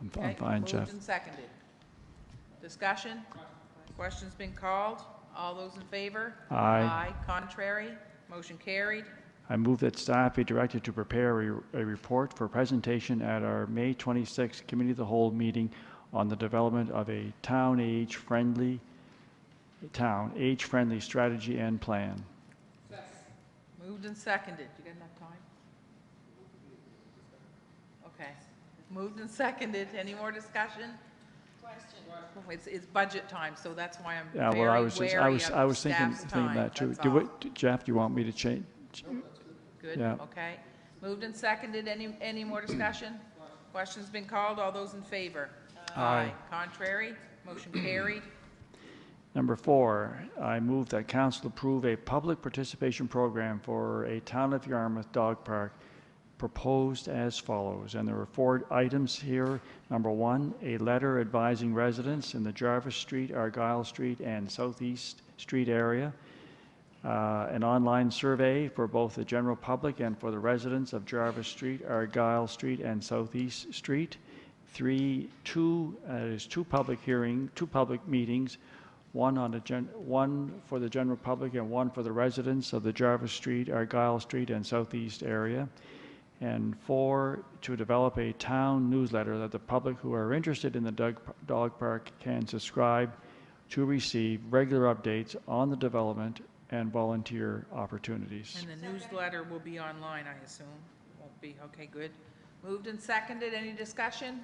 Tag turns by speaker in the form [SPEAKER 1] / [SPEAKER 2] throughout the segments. [SPEAKER 1] I'm fi-
[SPEAKER 2] Okay,
[SPEAKER 1] I'm fine, Jeff.
[SPEAKER 2] Moved and seconded. Discussion? Questions been called? All those in favor?
[SPEAKER 1] Aye.
[SPEAKER 2] Aye, contrary, motion carried.
[SPEAKER 1] I move that staff be directed to prepare a, a report for presentation at our May 26th Committee of the Whole meeting on the development of a town age-friendly, town age-friendly strategy and plan.
[SPEAKER 2] Moved and seconded. You got enough time? Okay. Moved and seconded. Any more discussion? Question. It's, it's budget time, so that's why I'm
[SPEAKER 1] Yeah,
[SPEAKER 2] very
[SPEAKER 1] well, I was just, I
[SPEAKER 2] wary of
[SPEAKER 1] was, I was thinking,
[SPEAKER 2] staff's
[SPEAKER 1] thinking
[SPEAKER 2] time.
[SPEAKER 1] that too.
[SPEAKER 2] That's
[SPEAKER 1] Do
[SPEAKER 2] all.
[SPEAKER 1] what- Jeff, do you want me to change?
[SPEAKER 2] Good,
[SPEAKER 1] Yeah.
[SPEAKER 2] okay. Moved and seconded, any, any more discussion? Question's been called, all those in favor?
[SPEAKER 1] Aye.
[SPEAKER 2] Contrary, motion carried.
[SPEAKER 1] Number four, I move that council approve a public participation program for a Town of Yarmouth dog park proposed as follows, and there are four items here. Number one, a letter advising residents in the Jarvis Street, Argyle Street, and Southeast Street area uh, an online survey for both the general public and for the residents of Jarvis Street, Argyle Street, and Southeast Street. Three, two, uh, there's two public hearing, two public meetings, one on the gen, one for the general public and one for the residents of the Jarvis Street, Argyle Street, and Southeast area. And four, to develop a town newsletter that the public who are interested in the dog, dog park can subscribe to receive regular updates on the development and volunteer opportunities.
[SPEAKER 2] And the newsletter will be online, I assume? Won't be, okay, good. Moved and seconded, any discussion?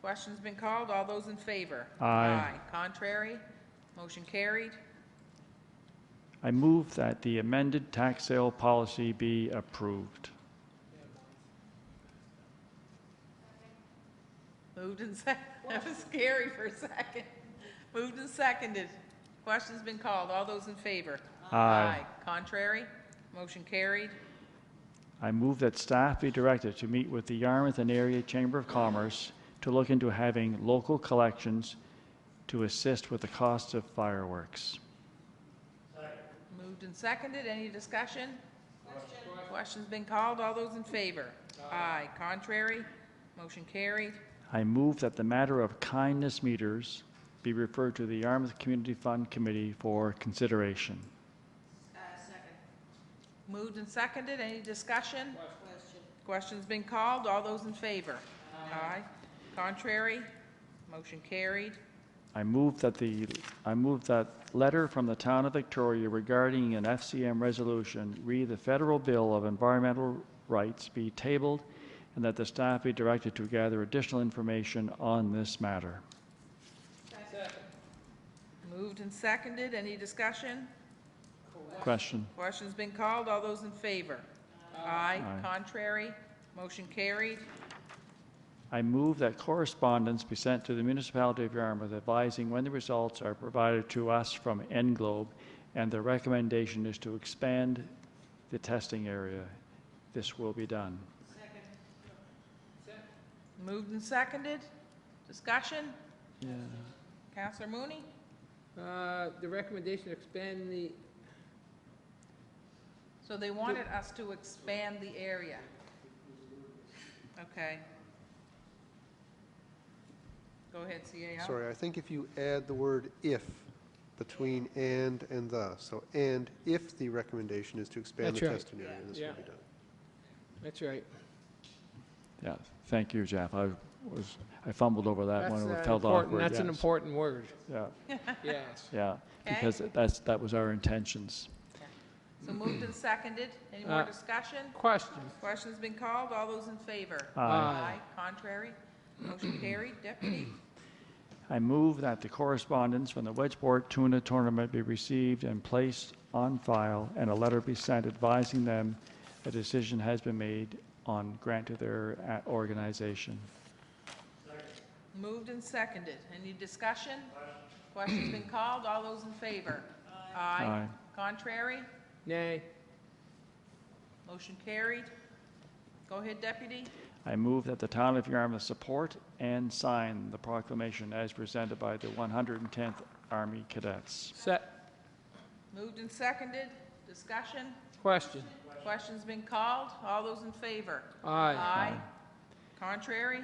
[SPEAKER 2] Question's been called, all those in favor?
[SPEAKER 1] Aye.
[SPEAKER 2] Contrary, motion carried.
[SPEAKER 1] I move that the amended tax sale policy be approved.
[SPEAKER 2] Moved and sec, that was scary for a second. Moved and seconded. Question's been called. All those in favor?
[SPEAKER 1] Aye.
[SPEAKER 2] Contrary? Motion carried.
[SPEAKER 1] I move that staff be directed to meet with the Yarmouth and Area Chamber of Commerce to look into having local collections to assist with the cost of fireworks.
[SPEAKER 2] Moved and seconded. Any discussion? Question. Question's been called. All those in favor? Aye. Contrary? Motion carried.
[SPEAKER 1] I move that the matter of kindness meters be referred to the Yarmouth Community Fund Committee for consideration.
[SPEAKER 2] Moved and seconded. Any discussion? Question's been called. All those in favor? Aye. Contrary? Motion carried.
[SPEAKER 1] I move that the, I move that letter from the Town of Victoria regarding an FCM resolution, re the Federal Bill of Environmental Rights be tabled, and that the staff be directed to gather additional information on this matter.
[SPEAKER 2] Moved and seconded. Any discussion?
[SPEAKER 1] Question?
[SPEAKER 2] Question's been called. All those in favor? Aye. Contrary? Motion carried.
[SPEAKER 1] I move that correspondence be sent to the municipality of Yarmouth advising when the results are provided to us from Englobe, and the recommendation is to expand the testing area. This will be done.
[SPEAKER 2] Moved and seconded. Discussion?
[SPEAKER 1] Yeah.
[SPEAKER 2] Counselor Mooney?
[SPEAKER 3] Uh, The recommendation to expand the,
[SPEAKER 2] So they wanted us to expand the area. Okay. Go ahead, CAO.
[SPEAKER 4] Sorry, I think if you add the word "if" between "and" and "the," so "and if the recommendation is to expand
[SPEAKER 3] That's
[SPEAKER 4] the
[SPEAKER 3] right.
[SPEAKER 4] testing area," this
[SPEAKER 3] Yeah.
[SPEAKER 4] will be done.
[SPEAKER 3] that's right.
[SPEAKER 1] Yeah, thank you, Jeff. I was, I fumbled over that one,
[SPEAKER 3] That's
[SPEAKER 1] it
[SPEAKER 3] an
[SPEAKER 1] felt
[SPEAKER 3] important-
[SPEAKER 1] awkward.
[SPEAKER 3] That's an
[SPEAKER 1] yes.
[SPEAKER 3] important word,
[SPEAKER 1] Yeah,
[SPEAKER 3] yes.
[SPEAKER 1] yeah, because that's, that was our intentions.
[SPEAKER 2] So moved and seconded. Any more
[SPEAKER 3] Uh,
[SPEAKER 2] discussion?
[SPEAKER 3] Question,
[SPEAKER 2] Question's been called. All those in favor?
[SPEAKER 3] Aye.
[SPEAKER 2] Contrary? Motion carried. Deputy?
[SPEAKER 1] I move that the correspondence from the Wedgeport Tuna Tournament be received and placed on file, and a letter be sent advising them a decision has been made on grant to their uh, organization.
[SPEAKER 2] Moved and seconded. Any discussion? Question's been called. All those in favor? Aye.
[SPEAKER 1] Aye.
[SPEAKER 2] Contrary?
[SPEAKER 3] nay.
[SPEAKER 2] Motion carried. Go ahead, deputy.
[SPEAKER 1] I move that the town of Yarmouth support and sign the proclamation as presented by the 110th Army Cadets.
[SPEAKER 3] Set,
[SPEAKER 2] Moved and seconded. Discussion?
[SPEAKER 3] question,
[SPEAKER 2] Question's been called. All those in favor?
[SPEAKER 3] aye.
[SPEAKER 2] Aye. Contrary?